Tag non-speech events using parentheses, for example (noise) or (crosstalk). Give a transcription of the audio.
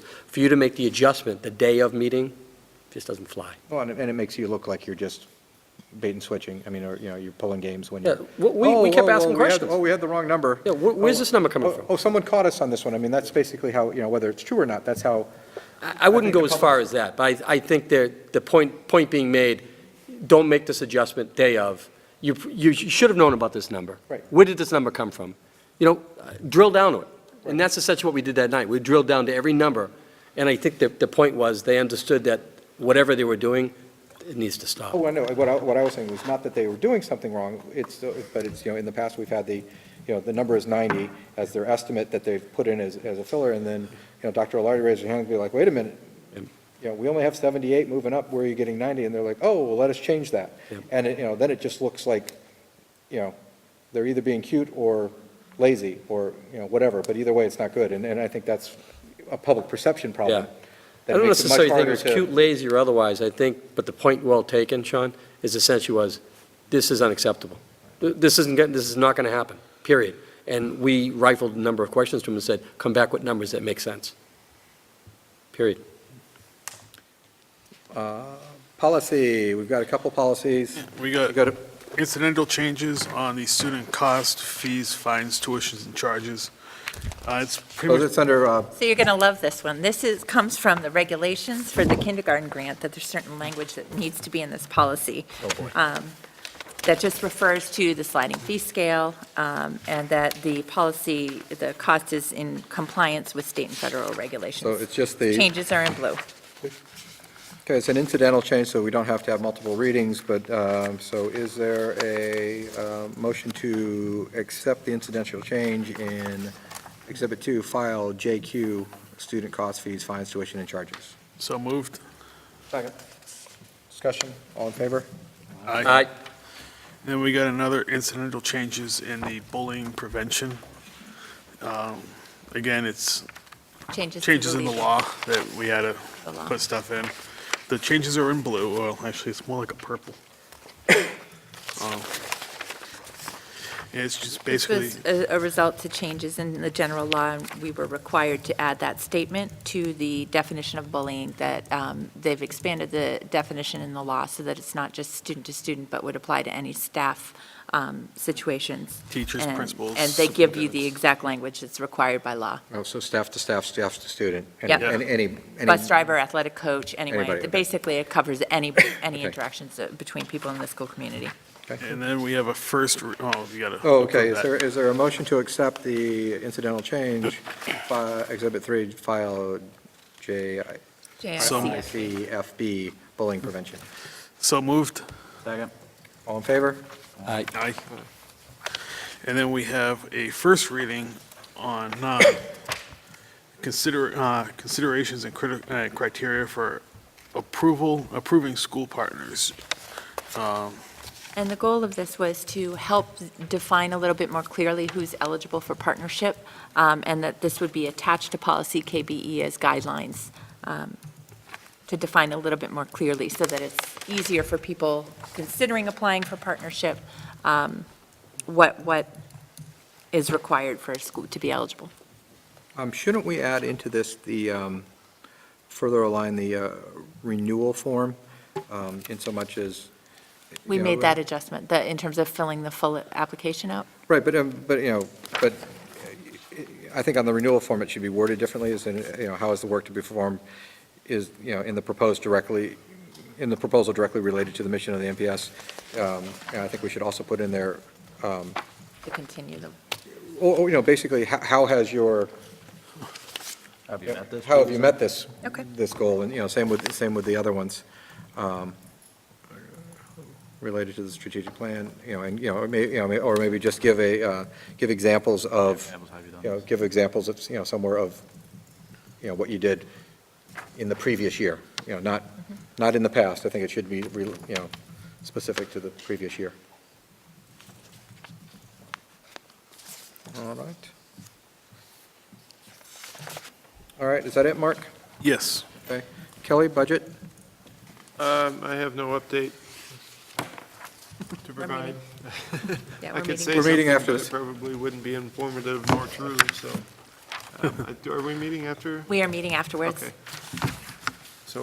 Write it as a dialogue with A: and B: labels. A: for you to make the adjustment the day of meeting, just doesn't fly.
B: Well, and it, and it makes you look like you're just bait and switching, I mean, or, you know, you're pulling games when
A: Yeah,
B: you're.
A: we- we-
B: Oh,
A: we kept
B: oh, oh,
A: asking
B: we had-
A: questions.
B: Oh, we had the wrong number.
A: Yeah, where- where's
B: Oh,
A: this number coming
B: oh,
A: from?
B: Oh, someone caught us on this one, I mean, that's basically how, you know, whether it's true or not, that's how,
A: I I wouldn't
B: I think
A: go
B: the
A: as far as that, but I, I think there, the point, point being made, don't make this adjustment day of. You, you should have known about this number.
B: Right.
A: Where did this number come from? You know, drill down to it. And that's essentially what we did that night. We drilled down to every number, and I think that the point was, they understood that whatever they were doing, it needs to stop.
B: oh, I know, what I, what I was saying was not that they were doing something wrong, it's, uh, but it's, you know, in the past, we've had the, you know, the number is ninety as their estimate that they've put in as, as a filler, and then, you know, Dr. Alardi raised her hand and be like, wait a minute, you know, we only have seventy-eight moving up, where are you getting ninety? And they're like, oh, well, let us change that.
A: Yep.
B: And, it- you know, then it just looks like, you know, they're either being cute or lazy, or, you know, whatever, but either way, it's not good, and, and I think that's a public perception problem.
A: Yeah.
B: that
A: I don't
B: makes it much
A: necessarily think it
B: harder
A: was
B: to-
A: cute, lazy, or otherwise, I think, but the point well taken, Sean, is essentially was, this is unacceptable. Th- This isn't, gonna- this is not going to happen, period. And we rifled a number of questions to him and said, come back with numbers that make sense. Period.
B: Uh, Policy, we've got a couple policies.
C: We
B: We
C: got
B: got a-
C: incidental changes on the student cost, fees, fines, tuitions, and charges. Uh, It's pretty
B: So
C: much,
B: it's under, uh,
D: So you're going to love this one. This is, comes from the regulations for the kindergarten grant, that there's certain language that needs to be in this policy.
B: Oh,
D: Um, That just refers to the sliding fee scale, um, and that the policy, the cost is in compliance with state and federal
B: so
D: regulations.
B: it's just the,
D: Changes are in blue.
B: okay, it's an incidental change, so we don't have to have multiple readings, but, um, so is there a uh, motion to accept the incidental change in Exhibit 2, File JQ, student cost fees, fines, tuition, and charges?
C: so moved.
B: Second. Discussion, all in favor?
C: Aye.
A: Aye.
C: Then we got another incidental changes in the bullying prevention. Um, Again, it's
D: Changes. to
C: changes in the
D: legal-
C: law that we had to
D: the law.
C: put stuff in. The changes are in blue, well, actually, it's more like a
D: (coughs)
C: purple. Um, It's just
D: This
C: basically.
D: was a, a result to changes in the general law, and we were required to add that statement to the definition of bullying, that um, they've expanded the definition in the law so that it's not just student to student, but would apply to any staff um, situations.
C: Teachers,
D: And-
C: principals,
D: And they give you the
C: superintendents.
D: exact language that's required by law.
B: Oh, so staff to staff, staff to student. and-
D: Yep.
B: And any, any.
D: Bus driver, athletic coach,
B: Anybody,
D: anyway,
B: okay.
D: basically it covers any, any
B: Okay.
D: interactions uh, between people in the school community.
B: Okay.
C: And then we have a first, re- oh, you gotta.
B: Oh, okay,
C: approve
B: is
C: that.
B: there, is there a motion to accept the incidental change, fi- Exhibit 3, File
C: So-
B: JICFB, bullying prevention?
C: So moved.
B: Second. All in favor?
A: Aye.
C: Aye. And then we have a first reading on uh, consider, uh, considerations and criti- uh, criteria for approval, approving school partners. Um,
D: And the goal of this was to help define a little bit more clearly who's eligible for partnership, um, and that this would be attached to policy KBE as guidelines, um, to define a little bit more clearly, so that it's easier for people considering applying for partnership, um, what, what is required for a school to be eligible.
B: Um, Shouldn't we add into this the, um, further align the uh, renewal form um, in so much as?
D: We
B: you know,
D: made that adjustment, that in terms of filling the full application out.
B: Right, but, um, but, you know, but uh, I think on the renewal form, it should be worded differently, is, in, you know, how is the work to be performed, is, you know, in the proposed directly, in the proposal directly related to the mission of the MPS. Um, And I think we should also put in there, um,
D: to continue the
B: or, or, you know, basically, ho- how has your,
E: Have you met this?
B: how have you met this?
D: Okay.
B: This goal, and, you know, same with, same with the other ones, um, related to the strategic plan, you know, and, you know, or may- you know, may- or maybe just give a, uh, give examples of.
E: Have you done
B: you know,
E: this?
B: give examples of, you know, somewhere of, you know, what you did in the previous year, you know, not, not in the past. I think it should be, re- you know, specific to the previous year. All right. All right, is that it, Mark?
C: Yes.
B: Okay. Kelly, budget?
F: Um, I have no update to provide.
D: Yeah,
F: I
D: we're
F: could
D: meeting.
F: say
B: We're meeting
F: something,
B: after
F: but
B: this.
F: it probably wouldn't be informative nor true, so
D: Um, uh, do- Are we meeting after?
F: We are meeting afterwards.
D: Okay.